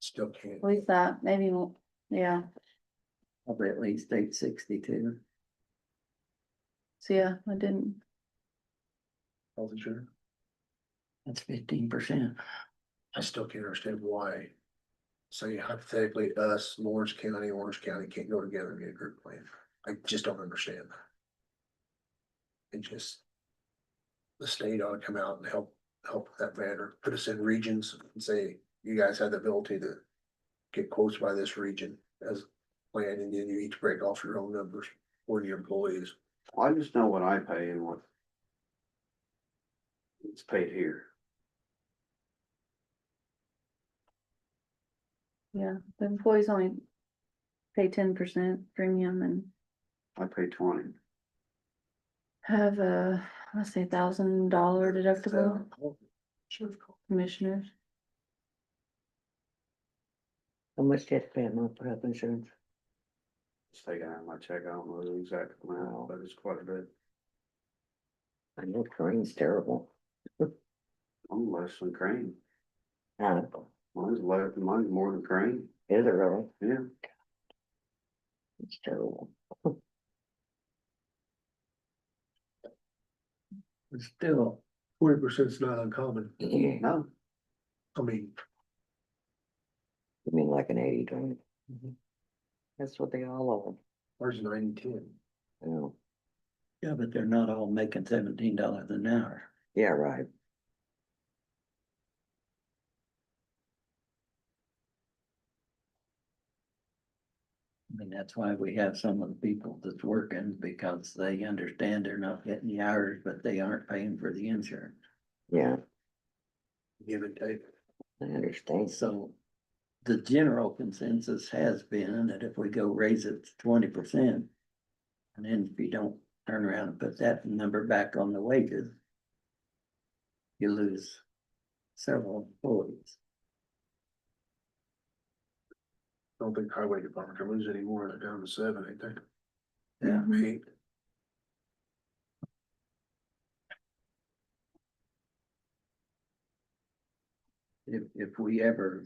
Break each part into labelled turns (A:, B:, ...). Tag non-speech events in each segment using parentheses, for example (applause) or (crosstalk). A: Still can't.
B: At least that, maybe, mo- yeah,
C: Probably at least eight sixty-two.
B: so yeah, I didn't,
A: Health insurance.
C: That's fifteen percent.
A: I still can't understand why. Say hypothetically, us, Lawrence County, Orange County can't go together and get a group plan. I just don't understand. that. It just. The state ought to come out and help, help with that matter, put us in regions and say, you guys have the ability to. Get quotes by this region as planned, and then you each break off your own numbers or your employees.
D: I just know what I pay and what. It's paid here.
B: yeah, the employees only pay ten percent premium and
D: I pay twenty.
B: have a, let's say, thousand dollar deductible
A: Sure.
B: commissioners.
C: How much did you pay a month for health insurance?
D: It's taken out of my check. I don't know the exact amount, but it's quite a bit.
C: I know Kareem's terrible.
D: I'm less than Crane.
C: Uh,
D: Mine's less, mine's more than Crane.
C: is it really?
D: Yeah.
C: It's terrible. Still.
A: Forty percent's not uncommon,
C: (clears throat) You
D: No,
A: I mean,
C: mean like an eighty twenty? Mm-hmm. That's what they all
A: ours is nine, ten.
C: are, you know,
E: Yeah, but they're not all making seventeen dollars an hour.
C: yeah, right.
E: I mean, that's why we have some of the people that's working because they understand they're not getting the hours, but they aren't paying for the insurance.
C: Yeah,
A: give and take.
C: I understand.
E: So the general consensus has been that if we go raise it to twenty percent. And then if you don't turn around and put that number back on the wages. You lose several employees.
A: I don't think highway department can lose any more than down to seven, I think.
E: Yeah.
A: Eight,
E: if, if we ever.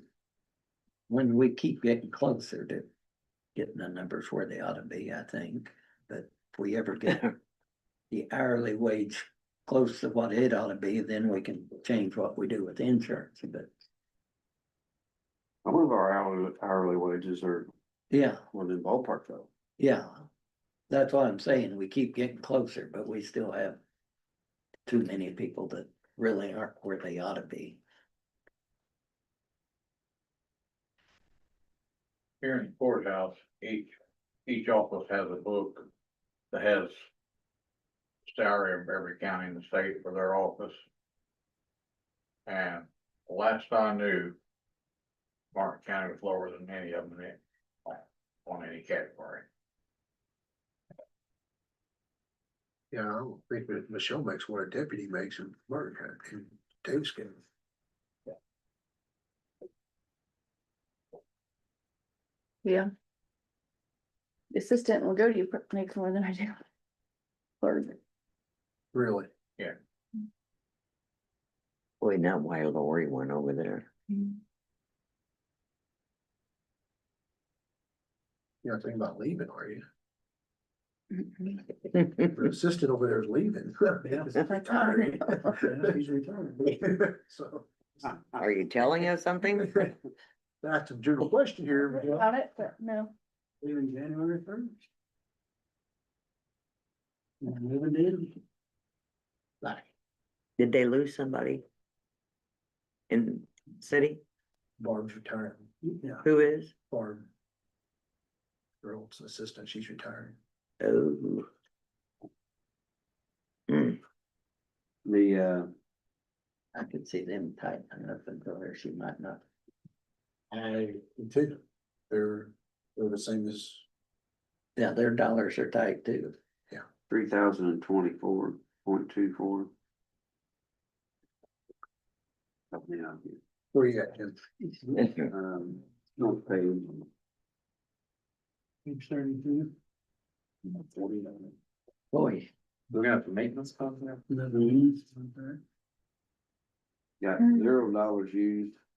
E: When we keep getting closer to getting the numbers where they ought to be, I think, but if we ever
D: (laughs)
E: get. The hourly wage close to what it ought to be, then we can change what we do with insurance, but
D: some of our hourly, hourly wages are
E: yeah,
D: within ballpark though.
E: yeah. That's what I'm saying, we keep getting closer, but we still have. Too many people that really aren't where they ought to be.
F: here in the courthouse, each, each office has a book that has salary of every county in the state for their office. And last I knew, Martin County was lower than any of them in, it, on any category.
A: yeah, I don't think that Michelle makes what a deputy makes in Martin County, in Davis County.
B: Yeah. The Assistant will go to you, pr- makes more than I do. Or,
A: really,
C: Boy, now why Lori went over there.
A: you're not thinking about leaving, are you?
B: Mm-mm.
C: (laughs)
A: Your assistant over there is leaving.
B: Retired.
A: Yeah, He's retired. (laughs) So.
C: Are you telling us something?
A: That's a general question here. Michelle.
B: About it, but no,
E: Leaving January first. Moving in. Like,
C: Did they lose somebody? In city?
A: Barb's retiring,
E: yeah,
C: Who is?
A: Barb. Her old assistant, she's retiring.
C: (laughs) Oh. Hmm,
D: The, uh,
E: uh, I could see them tightening up and go there, she might not.
A: I. Too, they're, they're the same as,
E: Yeah, their dollars are tight too.
D: three thousand and twenty-four point two four. Help me out here.
A: where you at, Ken?
D: Um, no pay.
A: Page thirty-two.
E: Boy,
D: We're gonna have to maintenance contract?
A: Another one.
D: Got
B: Mm.
D: zero dollars used